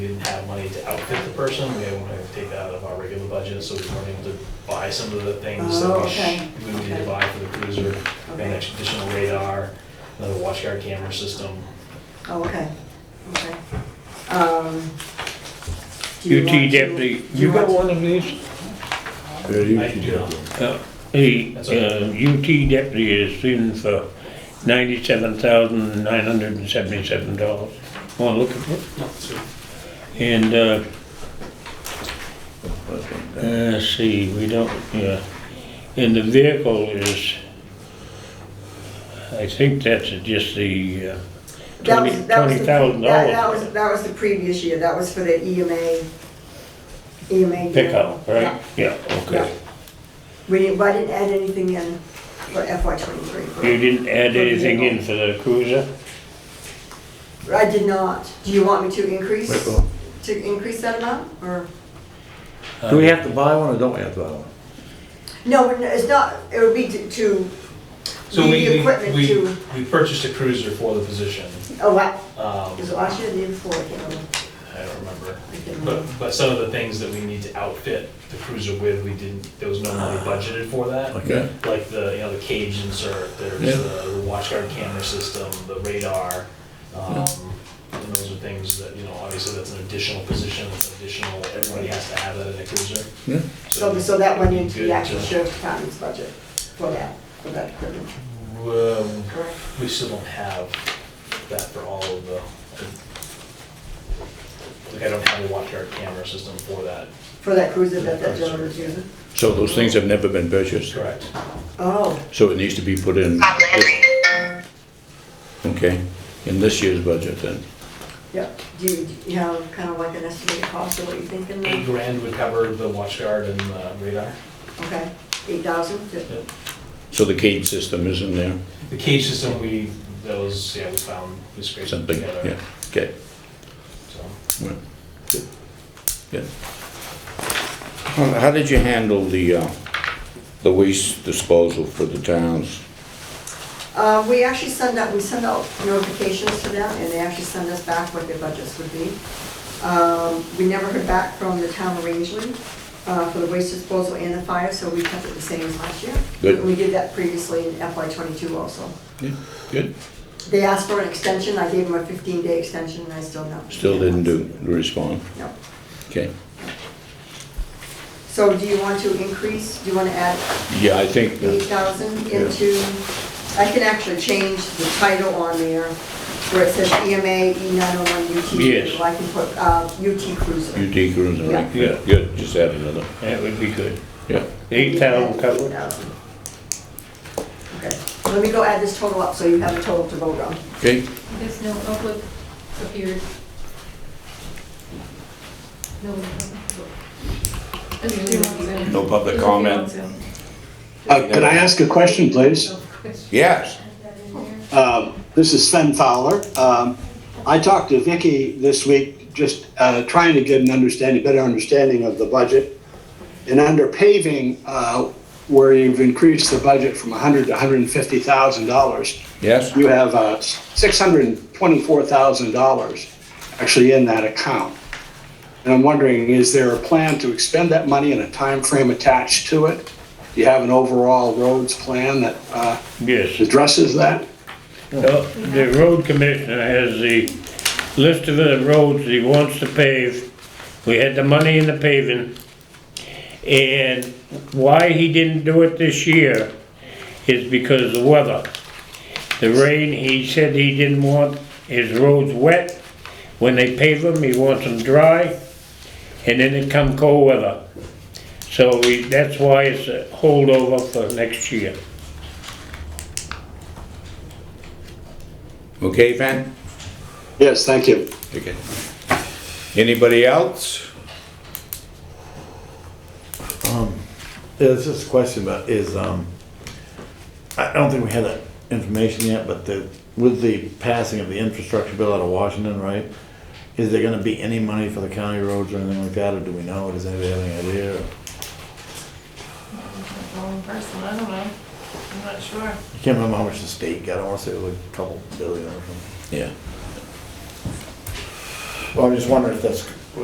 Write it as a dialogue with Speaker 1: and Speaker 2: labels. Speaker 1: person, we were to take that out of our regular budget, so we weren't able to buy some of the things that
Speaker 2: Oh,
Speaker 1: we sh-
Speaker 2: okay,
Speaker 1: we would need to
Speaker 2: okay.
Speaker 1: buy for the cruiser, an
Speaker 2: Okay.
Speaker 1: additional radar, another watch guard camera system.
Speaker 2: Oh, okay, okay. Um, do you
Speaker 3: UT
Speaker 2: want to-
Speaker 3: deputy,
Speaker 2: do
Speaker 3: you got
Speaker 2: want
Speaker 3: one of these?
Speaker 4: Yeah, you
Speaker 1: I
Speaker 4: can
Speaker 1: do
Speaker 4: get
Speaker 1: not.
Speaker 4: them.
Speaker 3: Uh, The
Speaker 1: That's okay.
Speaker 3: uh, UT deputy is in for ninety-seven thousand nine hundred and seventy-seven dollars. Want to look at it? And, uh, uh, let's see, we don't, yeah, and the vehicle is, I think that's just the uh,
Speaker 2: That was- that
Speaker 3: twenty,
Speaker 2: was
Speaker 3: twenty
Speaker 2: the pre-
Speaker 3: thousand
Speaker 2: that- That was,
Speaker 3: dollars
Speaker 2: that was the previous year, that was for the E EMA, EMA.
Speaker 3: pickup,
Speaker 2: Yeah.
Speaker 3: right? Yeah,
Speaker 2: Yeah.
Speaker 3: okay.
Speaker 2: We didn't, but I didn't add anything in for FY twenty-three.
Speaker 3: You didn't add
Speaker 2: For
Speaker 3: anything in
Speaker 2: vehicle.
Speaker 3: for the cruiser?
Speaker 2: I did not. Do you want me to increase,
Speaker 4: Wait, well,
Speaker 2: to increase that amount, or?
Speaker 4: Do we have to buy one or don't we have to buy one?
Speaker 2: No, we're not- it's not, it would be to- to,
Speaker 1: So
Speaker 2: Need
Speaker 1: we,
Speaker 2: the
Speaker 1: we-
Speaker 2: equipment
Speaker 1: we,
Speaker 2: to-
Speaker 1: we purchased a cruiser for the position.
Speaker 2: oh, what,
Speaker 1: Um,
Speaker 2: is it last year or the year before? I can't remember.
Speaker 1: I don't remember.
Speaker 2: I can't
Speaker 1: But,
Speaker 2: remember.
Speaker 1: but some of the things that we need to outfit the cruiser with, we didn't, there was no money budgeted for that.
Speaker 4: Okay.
Speaker 1: Like the, you know, the cage insert, there's
Speaker 4: Yeah.
Speaker 1: the the watchguard camera system, the radar. um, And those are things that, you know, obviously that's an additional position, it's additional, everybody has to have that in a cruiser.
Speaker 4: Yeah.
Speaker 2: So, so that went into
Speaker 1: Good
Speaker 2: the actual
Speaker 1: to-
Speaker 2: sheriff's department's budget for that, for that equipment,
Speaker 1: Um,
Speaker 2: correct?
Speaker 1: We still don't have that for all of the, like I don't have a watchguard camera system for that.
Speaker 2: For that cruiser that that gentleman was using?
Speaker 5: So those things have never been purchased,
Speaker 1: Correct.
Speaker 2: Oh,
Speaker 5: so it needs to be put in. Okay, in this year's budget then.
Speaker 2: yeah. Do you, do you have kind of like an estimated cost of what you're thinking?
Speaker 1: Eight grand would cover the watchguard and the radar.
Speaker 2: Okay, eight thousand?
Speaker 5: So the cage system is in there,
Speaker 1: The cage system, we, that was, yeah, we found, we scraped it
Speaker 5: something,
Speaker 1: together.
Speaker 5: yeah, okay.
Speaker 1: so.
Speaker 5: Well, good, good. How how did you handle the, uh, the waste disposal for the towns?
Speaker 2: Uh, we actually send out, we send out notifications to them, and they actually send us back what their budgets would be. Um, we never heard back from the town of Rangeley, uh, for the waste disposal and the fire, so we kept it the same as last year.
Speaker 5: Good.
Speaker 2: We did that previously in FY twenty-two also.
Speaker 5: Yeah, Good.
Speaker 2: They asked for an extension, I gave them a fifteen-day extension, and I still don't.
Speaker 5: Still didn't do, respond,
Speaker 2: No.
Speaker 5: okay.
Speaker 2: So do you want to increase, do you want to add
Speaker 5: Yeah, I think,
Speaker 2: eight thousand into, I can actually change the title on there where it says EMA, E nine oh one UT.
Speaker 3: Yes.
Speaker 2: I can put, uh, UT
Speaker 5: you
Speaker 2: Cruiser.
Speaker 5: decrease,
Speaker 2: Yeah.
Speaker 5: right, yeah, good, just add another,
Speaker 3: That would be good.
Speaker 5: yeah.
Speaker 3: Eight thousand covered?
Speaker 2: 8,000. Okay, let me go add this total up so you have a total to vote on.
Speaker 5: Okay,
Speaker 6: There's no public appeared. No. public.
Speaker 5: no public comment?
Speaker 7: Uh, Can I ask a question, please?
Speaker 5: Yes.
Speaker 7: Um, This is Sven Fowler. Um, I talked to Vicky this week, just uh, trying to get an understanding, better understanding of the budget. And under paving, uh, where you've increased the budget from 100 to 150,000 dollars,
Speaker 5: Yes?
Speaker 7: you have uh, $624,000 actually in that account. And I'm wondering, is there a plan to expend that money and a time frame attached to it? Do you have an overall roads plan that uh,
Speaker 3: Yes.
Speaker 7: addresses that?
Speaker 3: Well, The road commissioner has the list of the roads he wants to pave. We had the money in the paving. And why he didn't do it this year is because of the weather. The rain, he said he didn't want his roads wet. When they pave them, he wants them dry. And then it come cold weather. So we- that's why it's a holdover for next year.
Speaker 5: Okay, Van?
Speaker 7: Yes, thank you.
Speaker 5: Okay. Anybody else?
Speaker 4: Um, Yeah, it's just a question, but is, um, I don't think we had that information yet, but the, with the passing of the infrastructure bill out of Washington, right? Is there gonna be any money for the county roads or anything like that, or do we know, does anybody have any idea?
Speaker 6: Wrong person, I don't know. I'm not sure.
Speaker 4: I can't remember how much the state got, I wanna say it was a couple billion or something.
Speaker 5: Yeah.
Speaker 4: Well, I'm just wondering if that's